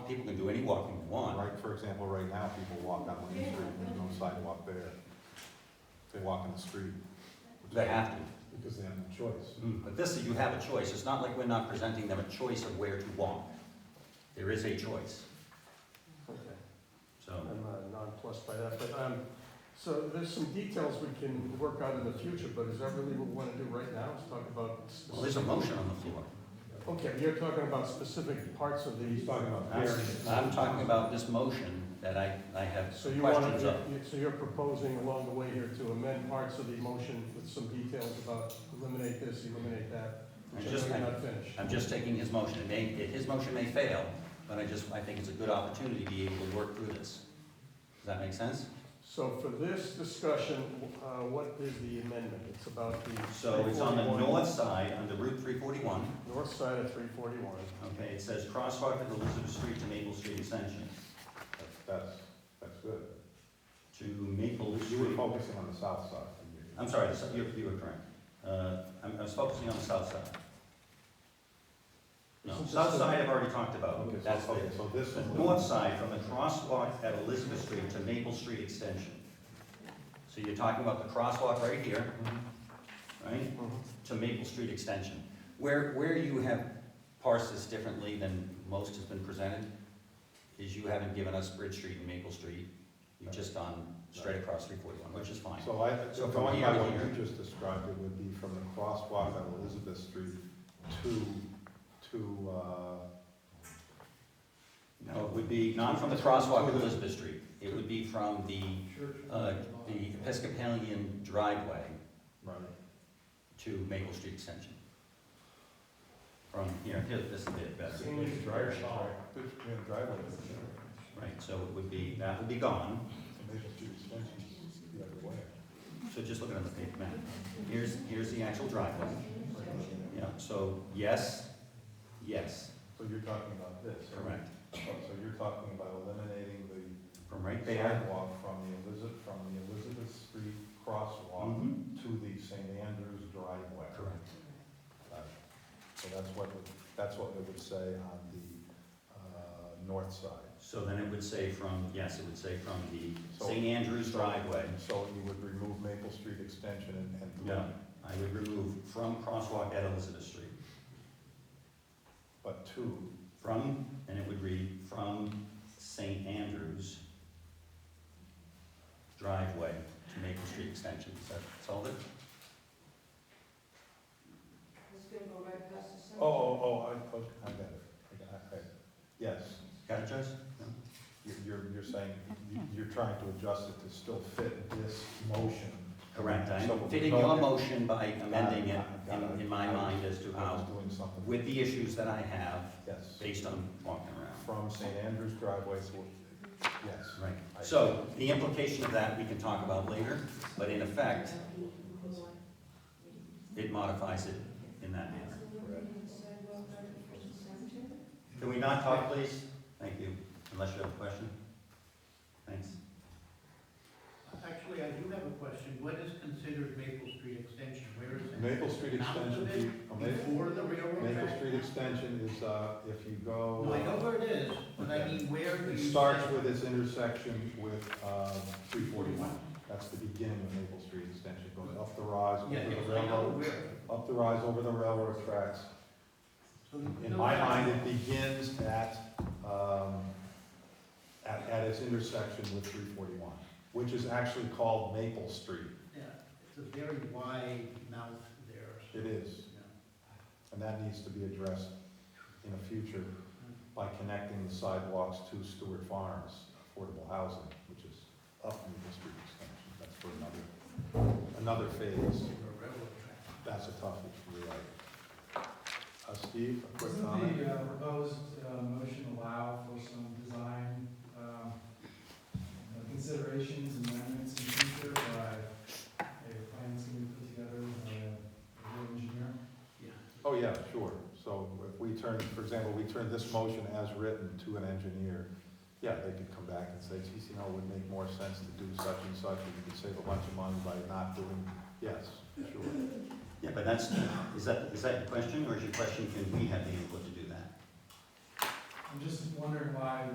people can do any walking they want. Right, for example, right now, people walk on Lane Street, there's no sidewalk there. They walk in the street. They have to. Because they have no choice. Mm, But this, you have a choice. It's not like we're not presenting them a choice of where to walk. There is a choice, Okay. so. I'm uh, nonplussed by that, but, um, so there's some details we can work on in the future, but is that really what we want to do right now, is talk about Well, there's a specific? motion on the floor. Okay, you're talking about specific parts of He's the, talking about variance. I'm I'm talking about this motion that I, I have so you want questions of. to, so you're proposing along the way here to amend parts of the motion with some details about eliminate this, eliminate that, I which just, are I- really not finished. I'm just taking his motion, it may, it- his motion may fail, but I just, I think it's a good opportunity to be able to work through this. Does that make sense? So for this discussion, uh, what is the amendment? It's about the. So it's on the 341 north side, under Route three forty-one, North side of three forty-one. okay, it says crosswalk at Elizabeth Street to Maple Street Extension, That's, that's good. to Maple You were Street. focusing on the south side. I'm sorry, so you, you were correct. Uh, I'm, I was focusing on the south side. No, Isn't this south the- side I've already talked about, Okay, so- that's okay, it. So this is. North side from the crosswalk at Elizabeth Street to Maple Street Extension. So you're talking about the crosswalk right here, Mm-hmm. right, Mhm. to Maple Street Extension. Where, where you have parsed this differently than most has been presented is you haven't given us Bridge Street and Maple Street. You've just gone straight across three forty-one, which is fine. So I, So so from going here by to what you here. just described, it would be from the crosswalk on Elizabeth Street to, to, uh, No, it would be, not from the crosswalk at Elizabeth Street. It would be from the, uh, the Episcopalian driveway right, to Maple Street Extension. From, here, here, this is a bit better. driveway. Right, so it would be, that would be gone, so just looking at the page map. Here's, here's the actual driveway. Yeah, so yes, yes, So you're talking about this, right? Oh, correct. So you're talking about eliminating the From right there. sidewalk from the Elizabeth, from the Elizabeth Street crosswalk Mhm, to the St. Andrews driveway. Correct. Gotcha. So that's what, that's what it would say on the, uh, north side. So then it would say from, yes, it would say from the So- St. Andrews driveway. So you would remove Maple Street extension and, and. Yeah, I would remove from crosswalk at Elizabeth Street. But two, From, and it would read, from St. Andrews driveway to Maple Street Extension. Does that solve it? oh, oh, oh, I, oh, I got it, I got it, yes. Got it, Joyce? No? You're- You're, you're saying, you- you're trying to adjust it to still fit this motion. Correct, So I'm we're fitting your talking- motion by amending it Got it, got in, it. in my mind as to I was how, doing something. Um, with the issues that I have, Yes, based on walking around. from St. Andrews driveway to, yes. Right, so the implication of that, we can talk about later, but in effect, it modifies it in that manner. Can we not talk, please? Thank you, unless you have a question. Thanks. Actually, I do have a question. What is considered Maple Street Extension? Where is it? Maple Street Not extension, the big- be- a Ma- Before the railroad Maple track? Street extension is, uh, if you go. uh, No, I know where it is, but I mean, where do you? It starts say- with its intersection with, uh, three forty-one. That's the beginning of Maple Street extension, going up the rise, Yeah, over yes, the I know railroad, where. up the rise over the railroad tracks. So In no, my I- mind, it begins at, um, at, at its intersection with three forty-one, which is actually called Maple Street. Yeah, it's a very wide mouth there. so, It is, yeah. and that needs to be addressed in the future by connecting the sidewalks to Stewart Farms, affordable housing, which is up Maple Street extension. That's for another, another phase. Over a railroad track. That's a tough issue, you're right. Uh, Steve, a quick Doesn't comment? the uh, proposed uh, motion allow for some design um, uh, considerations and amendments in future by a plan that's going to be put together by a real engineer? Yeah. Oh, yeah, sure. So if we turn, for example, we turn this motion as written to an engineer, yeah, they could come back and say, geez, you know, it would make more sense to do such and such, and you could save a bunch of money by not doing, yes, sure. Yeah, but that's, is that, is that your question, or is your question, can we have the input to do that? I'm just wondering why